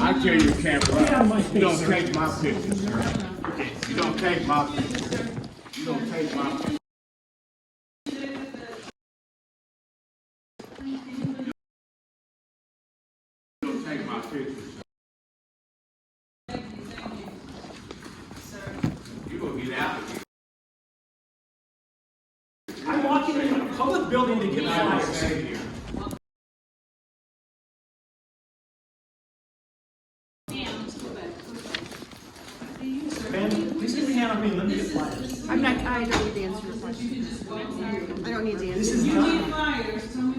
I tell you, can't run. You don't take my pictures, sir. You don't take my pictures. You don't take my pictures. You don't take my pictures, sir. You gonna get out of here. I'm walking in a public building to get I don't flyers. stay here. Ma'am, please get your hand on me and let me get flyers. I'm not, I don't need the answer to your question. I don't need the This answer. is not,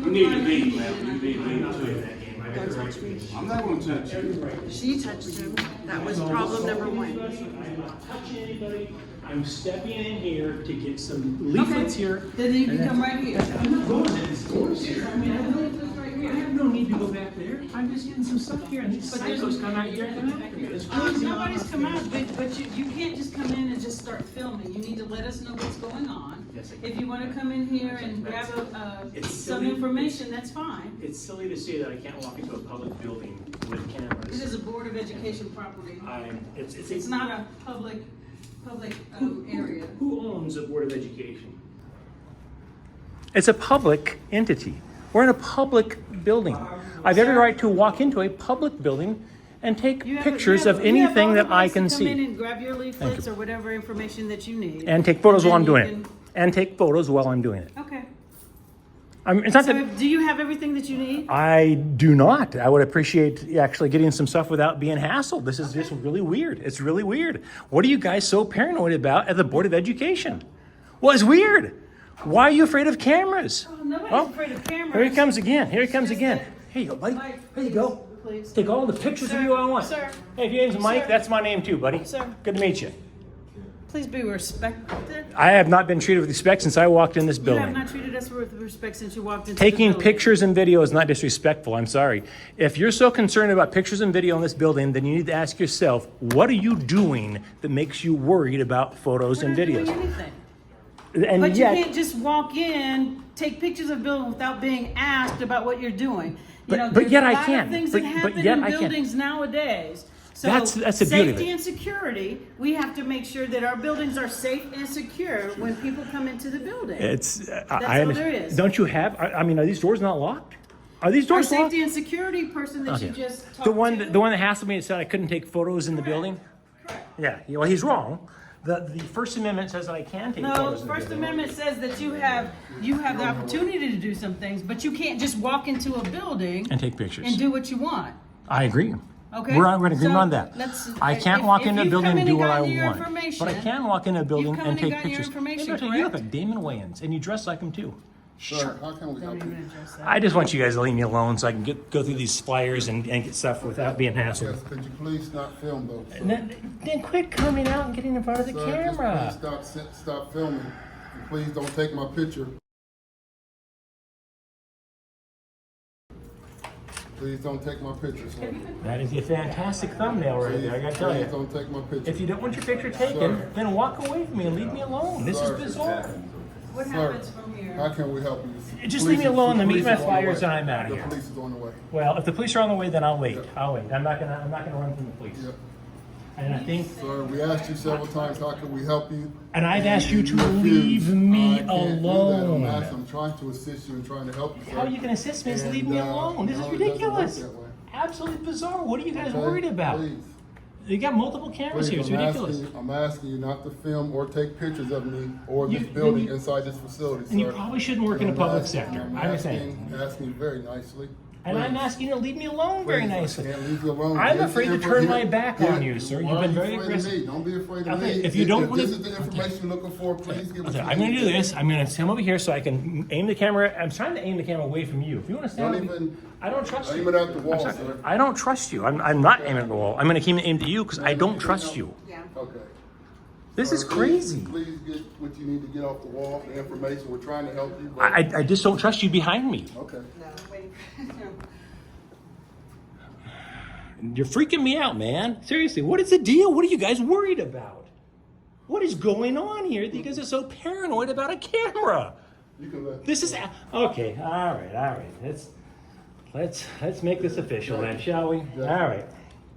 You need to leave, ma'am. You need to I'm not leave. doing that game. I got Don't the right touch to me. be. I'm not gonna touch you. She touched him. That was problem number one. I'm not touching anybody. I'm stepping in here to get some leaflets here. Then you can come right here. I'm not going to these doors here. I mean, I really, I have no need to go back there. I'm just getting some stuff here and these psychos come out here and come after me. It's Um, crazy. Nobody's come out, but, but you, you can't just come in and just start filming, you need to let us know what's going on. Yes, I can. If you wanna come in here and grab a, uh, It's some silly. information, that's fine. It's silly to say that I can't walk into a public building with This is cameras. a Board of Education property, I, it's, it's. it's not a public, public, um, area. Who owns a Board of Education? It's a public entity. We're in a public building. Um, I have every right to walk into a public building and take You have- pictures you have- of you have all anything the that I rights to can Come in see. and grab your leaflets or whatever information that you need. And take photos while I'm And then doing you it. And take photos while I'm doing it. can- Okay, I'm, it's not so that do you have everything that you need? I do not. I would appreciate actually getting some stuff without being hassled. This is just really weird. It's really weird. What are you guys so paranoid about at the Board of Education? Well, it's weird. Why are you afraid of cameras? Well, Nobody's afraid of cameras. Here he comes again. Here he comes Just again. that- Here you go, buddy. Mike, Here you please, go. please. Take all the pictures Sir, of you I want. sir. Hey, if your name's Mike, Sir. that's my name too, buddy. Sir. Good to meet you. Please be respected. I have not been treated with respect since I walked in this You have building. not treated us with respect since you walked into the Taking building. pictures and video is not disrespectful. I'm sorry. If you're so concerned about pictures and video in this building, then you need to ask yourself, what are you doing that makes you worried about photos We're and not doing videos? anything. And But you yet, can't just walk in, take pictures of buildings without being asked about what you're doing. You But- know, but there's yet a I lot of can. Things But- that but happen yet in I can. buildings nowadays. So That's- that's the beauty of Safety it. and security, we have to make sure that our buildings are safe and secure when people come into the building. it's, I, That's I all there understand. is. Don't you have, I, I mean, are these doors not locked? Are these Our doors locked? safety and security person that you Okay. just talked to. Oh, The one, that- the one that hassled me and said I couldn't take photos in the building? Correct. Yeah, yeah, well, he's wrong. The, the First Amendment says that I can take No, photos the in the First building. Amendment says that you have, you have the opportunity to do some things, but you can't just walk into a building And take pictures. and do what you want, I agree. okay? We're, we're in agreement So, on that. let's- I can't if- walk if into a you've building come and in do what I gotten your want. But I information- can walk into a building and come in and take gotten your pictures. information, Hey, look, You look correct? like Damon Wayans and you dress like him too. Sir, how can we help you? I just want you guys to leave me alone so I can get, go through these flyers and, and get stuff without being Yes, hassled. could you please not film though? sir? And Then then quit coming out and getting in front of the Sir, just camera. Please stop, si- stop filming, and please don't take my picture. Please don't take my picture, sir. That is a fantastic thumbnail right there, I gotta tell Please you. don't take my If picture. you don't want your picture taken, then walk away from me and leave me alone. This is Sorry. bizarre. What Sir, happens from How here? can we help you? Just Police leave me is- alone, the police meat and my is on the flyers, way. and I'm outta here. The police is on the way. Well, if the police are on the way, then I'll wait. I'll wait. I'm not gonna. I'm not gonna run from the police. Yep. And I think. Sir, we asked you several times, how can we help you? And I've asked you to refuse. leave me I can't do that. I'm alone. asked- I'm trying to assist you and trying to help you, sir. How are you gonna assist me? Just leave me And, uh, alone. This no, is it doesn't work ridiculous. that way. Absolutely bizarre. What are you guys Okay? worried about? Please. You got multiple cameras here. It's Please, I'm ridiculous. asking, I'm asking you not to film or take pictures of me or You- this then building you- inside this facility, sir. And you probably shouldn't work in the I'm public asking- sector. I'm I understand. asking, asking you very nicely. And I'm Please. asking you to leave me alone very Please, I nicely. can't leave you alone. I'm Here's the afraid to info- turn here- my back here- on you, sir. You've why are been you very afraid of me? aggressive. Don't be afraid of me. Okay, if you don't wanna- This is the information you're looking for, please give it Okay, to me. I'm gonna do this. I'm gonna come over here so I can aim the camera. I'm trying to aim the camera away from you. If you want to stand, Don't up- even- I don't trust aim you. it at the wall, I'm sorry. sir. I don't trust you. I'm, I'm not aiming at the wall. I'm gonna keep aim at you because I don't trust you. Yeah. Okay. This is Sir, crazy. Please please get what you need to get off the wall, the information, we're trying to help you. but- I, I- I just don't trust you behind me. Okay. No, wait. You're freaking me out, man. Seriously, what is the deal? What are you guys worried about? What is going on here? that You guys are so paranoid about a camera. You can let. This is a- okay. All right, all right. Let's let's let's make this official then, shall we? All right.